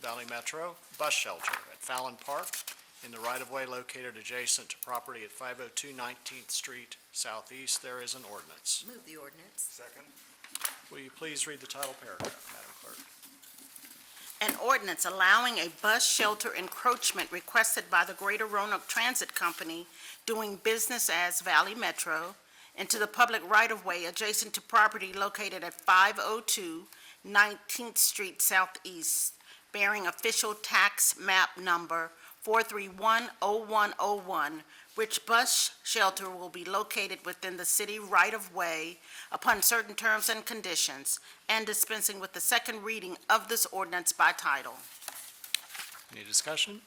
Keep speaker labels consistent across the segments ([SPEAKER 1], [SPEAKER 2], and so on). [SPEAKER 1] Valley Metro Bus Shelter at Fallon Park in the right-of-way located adjacent to property at 502 19th Street Southeast. There is an ordinance.
[SPEAKER 2] Move the ordinance.
[SPEAKER 3] Second.
[SPEAKER 1] Will you please read the title paragraph, Madam Clerk?
[SPEAKER 4] An ordinance allowing a bus shelter encroachment requested by the Greater Roanoke Transit Company doing business as Valley Metro into the public right-of-way adjacent to property located at 502 19th Street Southeast, bearing official tax map number 4310101, which bus shelter will be located within the city right-of-way upon certain terms and conditions, and dispensing with the second reading of this ordinance by title.
[SPEAKER 1] Any discussion?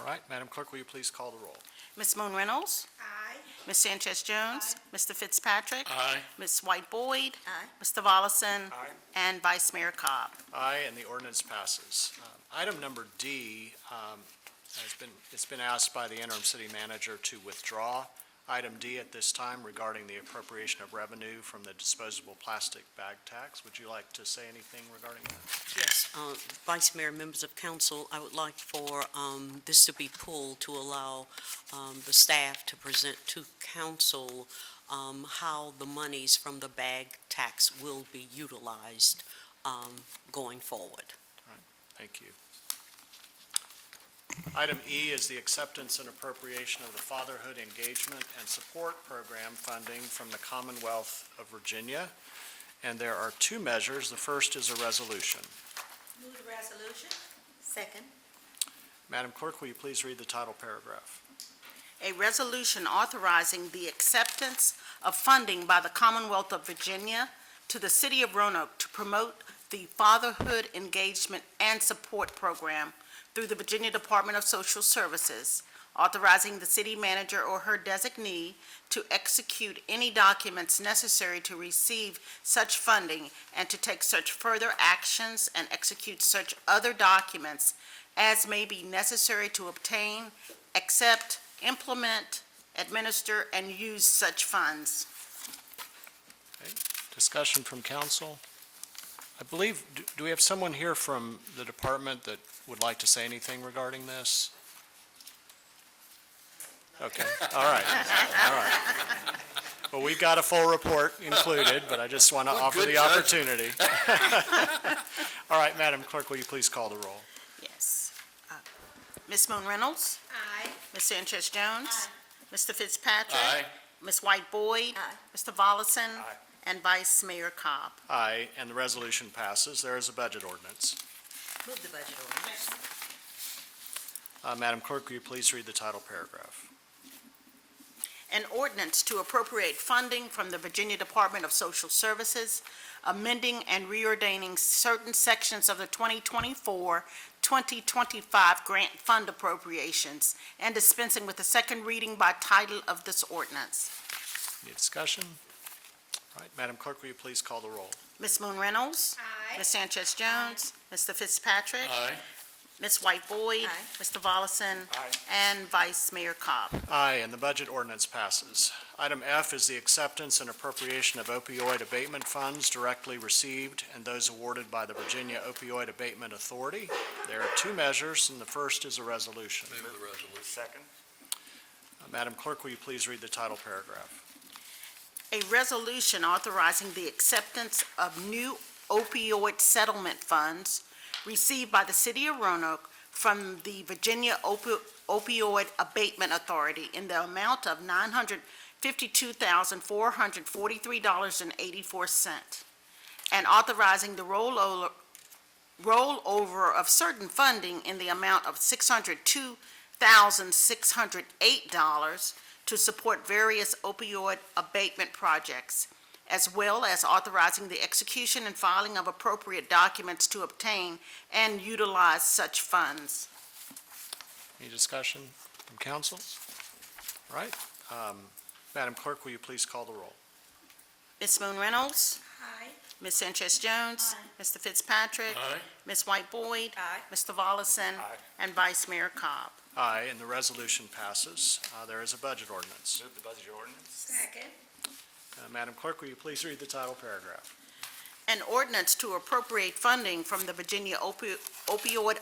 [SPEAKER 1] All right, Madam Clerk, will you please call the roll?
[SPEAKER 4] Ms. Moon Reynolds?
[SPEAKER 2] Aye.
[SPEAKER 4] Ms. Sanchez Jones? Mr. Fitzpatrick?
[SPEAKER 1] Aye.
[SPEAKER 4] Ms. White Boyd?
[SPEAKER 2] Aye.
[SPEAKER 4] Mr. Volleson?
[SPEAKER 3] Aye.
[SPEAKER 4] And Vice Mayor Cobb.
[SPEAKER 1] Aye, and the ordinance passes. Um, Item number D um, has been, it's been asked by the interim city manager to withdraw item D at this time regarding the appropriation of revenue from the disposable plastic bag tax. Would you like to say anything regarding that?
[SPEAKER 5] Yes, uh, Vice Mayor, members of council, I would like for um, this to be pulled to allow um, the staff to present to council um, how the monies from the bag tax will be utilized um, going forward.
[SPEAKER 1] Thank you. Item E is the acceptance and appropriation of the Fatherhood Engagement and Support Program funding from the Commonwealth of Virginia. And there are two measures. The first is a resolution.
[SPEAKER 2] Move the resolution. Second.
[SPEAKER 1] Madam Clerk, will you please read the title paragraph?
[SPEAKER 4] a resolution authorizing the acceptance of funding by the Commonwealth of Virginia to the City of Roanoke to promote the Fatherhood Engagement and Support Program through the Virginia Department of Social Services, authorizing the city manager or her designee to execute any documents necessary to receive such funding and to take such further actions and execute such other documents as may be necessary to obtain, accept, implement, administer, and use such funds.
[SPEAKER 1] Discussion from council? I believe, do- do we have someone here from the department that would like to say anything regarding this? Okay, all right, all right. Well, we've got a full report included, but I just want to offer
[SPEAKER 3] good
[SPEAKER 1] the
[SPEAKER 3] judgment.
[SPEAKER 1] opportunity. All right, Madam Clerk, will you please call the roll?
[SPEAKER 4] Yes. Uh, Ms. Moon Reynolds?
[SPEAKER 2] Aye.
[SPEAKER 4] Ms. Sanchez Jones?
[SPEAKER 2] Aye.
[SPEAKER 4] Mr. Fitzpatrick? Ms. White Boyd?
[SPEAKER 2] Aye.
[SPEAKER 4] Mr. Volleson?
[SPEAKER 3] Aye.
[SPEAKER 4] And Vice Mayor Cobb.
[SPEAKER 1] Aye, and the resolution passes. There is a budget ordinance.
[SPEAKER 2] Move the budget ordinance.
[SPEAKER 1] Uh, Madam Clerk, will you please read the title paragraph?
[SPEAKER 4] An ordinance to appropriate funding from the Virginia Department of Social Services, amending and reordaining certain sections of the 2024-2025 grant fund appropriations, and dispensing with the second reading by title of this ordinance.
[SPEAKER 1] Any discussion? All right, Madam Clerk, will you please call the roll?
[SPEAKER 4] Ms. Moon Reynolds?
[SPEAKER 2] Aye.
[SPEAKER 4] Ms. Sanchez Jones? Mr. Fitzpatrick? Ms. White Boyd?
[SPEAKER 2] Aye.
[SPEAKER 4] Mr. Volleson?
[SPEAKER 3] Aye.
[SPEAKER 4] And Vice Mayor Cobb.
[SPEAKER 1] Aye, and the budget ordinance passes. Item F is the acceptance and appropriation of opioid abatement funds directly received and those awarded by the Virginia Opioid Abatement Authority. There are two measures, and the first is a resolution.
[SPEAKER 3] Move the resolution. Second.
[SPEAKER 1] Madam Clerk, will you please read the title paragraph?
[SPEAKER 4] A resolution authorizing the acceptance of new opioid settlement funds received by the city of Roanoke from the Virginia Opi- Opioid Abatement Authority in the amount of nine hundred fifty-two thousand, four hundred forty-three dollars and eighty-four cent, and authorizing the rollover, rollover of certain funding in the amount of six hundred two thousand, six hundred eight dollars to support various opioid abatement projects, as well as authorizing the execution and filing of appropriate documents to obtain and utilize such funds.
[SPEAKER 1] Any discussion from council? All right, um, Madam Clerk, will you please call the roll?
[SPEAKER 4] Ms. Moon Reynolds?
[SPEAKER 2] Aye.
[SPEAKER 4] Ms. Sanchez Jones? Mr. Fitzpatrick?
[SPEAKER 3] Aye.
[SPEAKER 4] Ms. White Boyd?
[SPEAKER 2] Aye.
[SPEAKER 4] Mr. Volleson?
[SPEAKER 3] Aye.
[SPEAKER 4] And Vice Mayor Cobb.
[SPEAKER 1] Aye, and the resolution passes. Uh, There is a budget ordinance.
[SPEAKER 3] Move the budget ordinance.
[SPEAKER 2] Second.
[SPEAKER 1] Uh, Madam Clerk, will you please read the title paragraph?
[SPEAKER 4] An ordinance to appropriate funding from the Virginia Opi- opioid